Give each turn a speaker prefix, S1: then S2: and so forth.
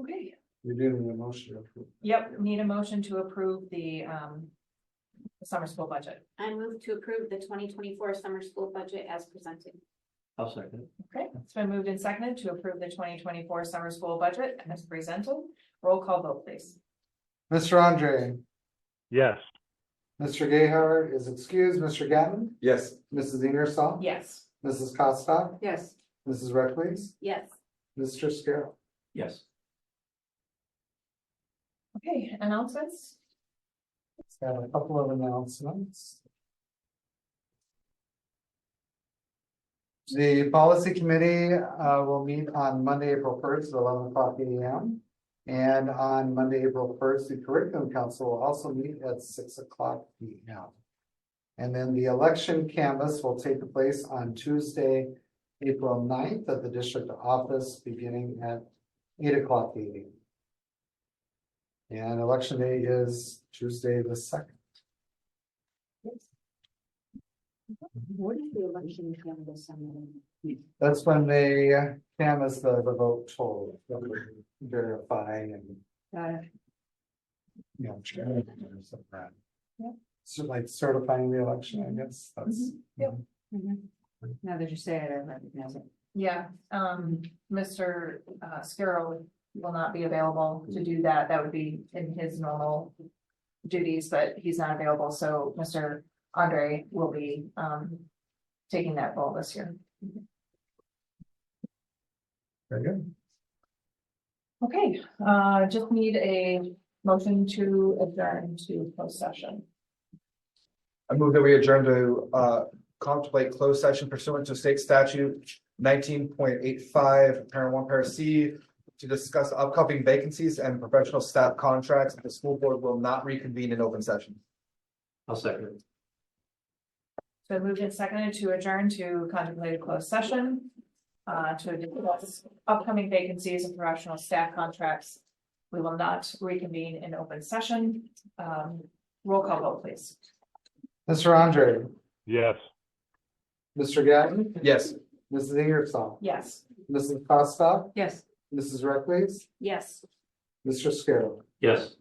S1: Okay,
S2: You're doing the motion. to approve.
S1: yep, need a motion to approve the um summer school budget.
S3: I move to approve the twenty twenty-four summer school budget as presented.
S4: I'll second.
S1: Okay, it's been moved and seconded to approve the twenty twenty-four summer school budget as presented. Roll call vote, please.
S2: Mr. Andre,
S5: yes,
S2: Mr. Gayheart is excused, Mr. Gatton,
S6: yes,
S2: Mrs. Ingersoll.
S1: Yes,
S2: Mrs. Costa,
S7: yes,
S2: Mrs. Reckles,
S3: Yes,
S2: Mr. Scarrow.
S4: Yes.
S1: okay, announcements?
S2: It's Got a couple of announcements. The policy committee uh will meet on Monday, April first, eleven o'clock AM. And on Monday, April first, the curriculum council will also meet at six o'clock PM. And then the election canvas will take place on Tuesday, April 9th, at the district office, beginning at eight o'clock meeting. And election day is Tuesday the second.
S7: what is the election canvas on
S2: That's when they canvass the, the vote total, verify and,
S7: that? Got it.
S2: you know. check
S7: Mm-hmm.
S2: it or something like that. So like certifying the election, I guess, that's.
S1: Mm-hmm.
S7: Mhm. Now that you say it, I recognize it.
S1: Yeah, um, Mr. uh, Scarrow will not be available to do that. That would be in his normal duties, but he's not available, so Mr. Andre will be, um, taking that role this year.
S2: Very good.
S1: Okay, uh, just need a motion to adjourn to closed session.
S6: I move that we adjourn to uh contemplate closed session pursuant to state statute. Nineteen point eight five, parent one, parent C, to discuss upcoming vacancies and professional staff contracts. The school board will not reconvene in open session.
S4: I'll second.
S1: So moved and seconded to adjourn to contemplate a closed session. Uh, to discuss upcoming vacancies and professional staff contracts. We will not reconvene in open session. Um, roll call vote, please.
S2: Mr. Andre,
S5: yes.
S2: Mr. Gatton,
S6: Yes.
S2: Mrs. Ingersoll,
S1: Yes,
S2: Mrs. Costa,
S7: Yes.
S2: Mrs. Reckles,
S3: yes.
S2: Mr. Scarrow.
S4: Yes.